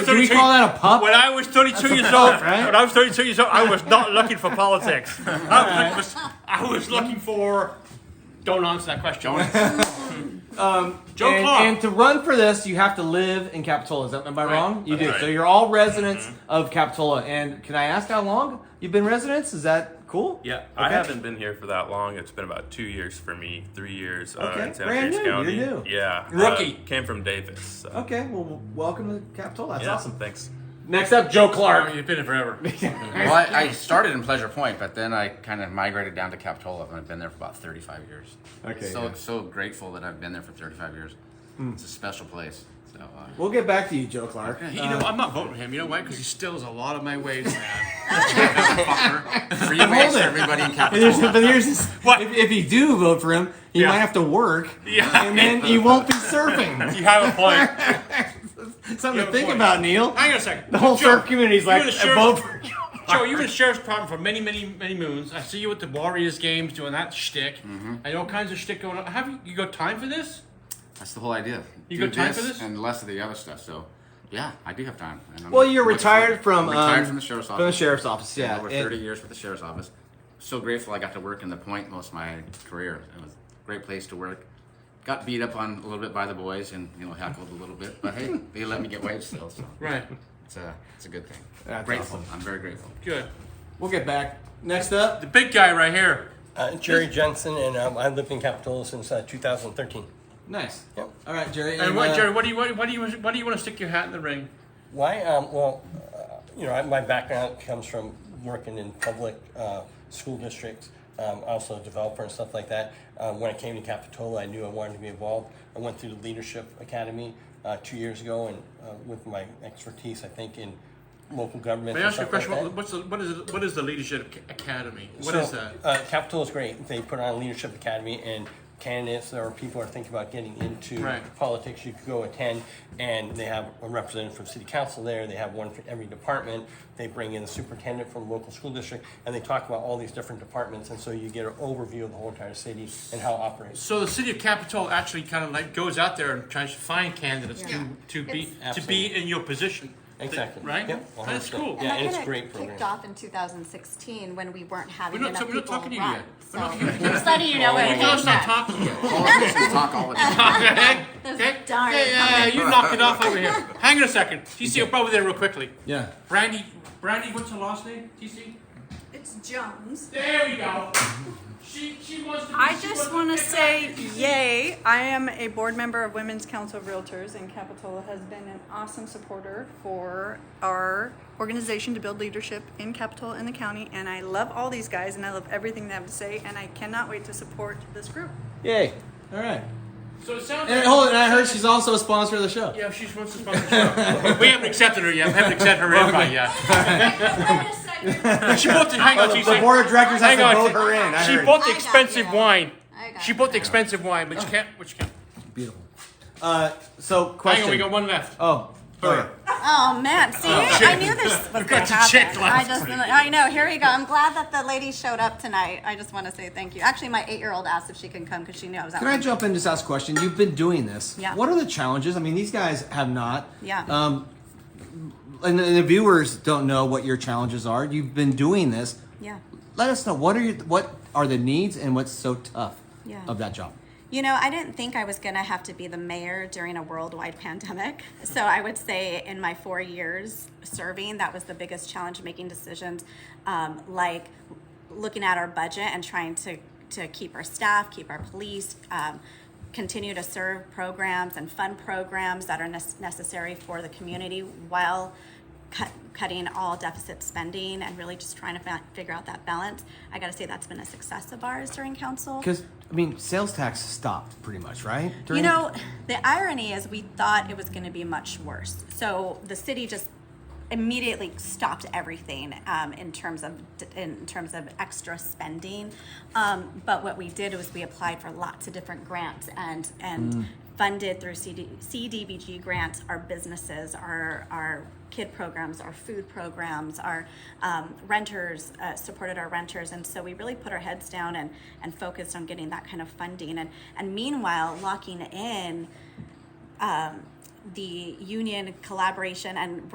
do you call that, a pup? When I was 32 years old, right? when I was 32 years old, I was not looking for politics. I was, I was looking for. Don't answer that question. Joe and, Clark. and to run for this, you have to live in Capitola. Is that, am I wrong? You do. right. Mm-hmm. So you're all residents of Capitola. And can I ask how long you've been residents? Is that cool? Yeah, I Okay. haven't been here for that long. It's been about two years for me, three years uh, Okay, in Santa brand Cruz new, County. you're new. Yeah, Rookie. uh, came from Davis. So. Okay. Well, w- welcome to Capitola. That's yeah, awesome. Thanks. Next up, Joe Clark, Clark. you've been here forever. Well, I, I started in Pleasure Point, but then I kind of migrated down to Capitola, and I've been there for about 35 years. Okay, So yeah. Hmm. so grateful that I've been there for 35 years. It's a special place. So. Uh, We'll get back to you, Joe Clark. yeah, You he- know, I'm not voting for him. You know why? Because he steals a lot of my ways, man. Free waste for everybody in Here's the- Capitola. but here's this, What? if, if you do vote for him, you Yeah. might have to work, Yeah. and then you won't be surfing. you have a point. Something You have to a think point. about, Neil. Hang on a second. The whole Joe, surf community's you're like, the "I sheriff." vote for Joe, you've been sheriff's department for many, many, many moons. I see you at the Warriors games doing that shtick and all kinds of shtick going on. Have you, you got time for this? That's the whole idea. You Do got time for this? And less of the other stuff. So, yeah, I do have time. And I'm Well, you're looking forward- retired from retired um, from the sheriff's office. From the sheriff's office, yeah. over And- 30 years with the sheriff's office. So grateful I got to work in the point most of my career. It was a great place to work. Got beat up on a little bit by the boys and you know heckled a little bit, but hey, they let me get waves still, so Right. it's a it's a good thing. That's grateful. awesome. I'm very grateful. Good. We'll get back. Next up, The big guy right here. Uh, Jerry Jensen, and um, I've lived in Capitola since uh, 2013. nice. Yep. All right, Jerry. And what, uh, Jerry? What do you what, what do you what do you want to stick your hat in the ring? Why? Um, well, uh, you know, I, my background comes from working in public uh, school districts, um, also a developer and stuff like that. Um, when I came to Capitola, I knew I wanted to be involved. I went through the Leadership Academy uh, two years ago, and uh, with my expertise, I think in local government. May I and ask you a stuff like question? What, that. what's the, what is it, what is the leadership Ac- academy? What So, is that? Uh, Capitol is great. They put on a leadership academy, and candidates or people are thinking about getting into Right. politics. You could go attend, and they have a representative from city council there. They have one for every department. They bring in the superintendent from local school district, and they talk about all these different departments, and so you get an overview of the whole entire city and how it operates. So the city of Capitol actually kind of like goes out there and tries to find candidates Yeah. to, to be to be Absolutely. in your position. Exactly. Right. Yep, That's 100%. cool. Yeah, and and it's that a great kinda Kicked program. off in 2016 when we weren't having We're not enough ta- we're not people talking to you run. yet. Oh, We're So not talking to you. just letting you know where You it gotta came stop from. talking to me. Politicians talk all the time. Okay. Those Okay. darn Yeah, yeah, yeah. You knock it off over here. Hang on a second. TC, over there real quickly. Yeah. Brandy, Brandy, what's her last name? TC. It's Jones. There we go. She she wants to. Be, I she wants just want to get back say, TC. yay! I am a board member of Women's Council of Realtors, and Capitola has been an awesome supporter for our organization to build leadership in Capitola and the county. And I love all these guys, and I love everything they have to say, and I cannot wait to support this group. Yay. All right. So it sounds. And like- hold on, I heard she's also a sponsor of the show. Yeah, she wants to sponsor the show. we haven't accepted her yet. We haven't accepted her invite yet. she bought the hang on, The TC. board of directors has Hang to on, vote she- her in. I She heard. bought the I got expensive you. wine. I got She you. bought the expensive wine, but you can't. Which can't. Beautiful. Uh, so Hang question. on, we got one left. Oh, Her. her. Oh man, see, I knew this was going to your chick happen. I last just, I know. Here we go. I'm glad that the lady showed up tonight. I just want to say thank you. Actually, my eight-year-old asked if she can come because she knew I was out. Can I with- jump in and just ask a question? You've been doing this. Yeah. What are the challenges? I mean, these guys have not. Yeah. Um, and, and the viewers don't know what your challenges are. You've been doing this. Yeah. Let us know what are your, what are the needs and what's so tough Yeah. of that job. You know, I didn't think I was going to have to be the mayor during a worldwide pandemic. So I would say in my four years serving, that was the biggest challenge making decisions um, like looking at our budget and trying to, to keep our staff, keep our police, um, continue to serve programs and fund programs that are nes- necessary for the community while cut, cutting all deficit spending and really just trying to fa- figure out that balance. I got to say that's been a success of ours during council. Because I mean, sales tax stopped pretty much, right? You During- know, the irony is we thought it was going to be much worse. So the city just immediately stopped everything um, in terms of in terms of extra spending. Um, but what we did was we applied for lots of different grants and and funded through CD, CDBG grants our businesses, our our kid programs, our food programs, our um, renters uh, supported our renters, and so we really put our heads down and and focused on getting that kind of funding. And and meanwhile, locking in um, the union collaboration and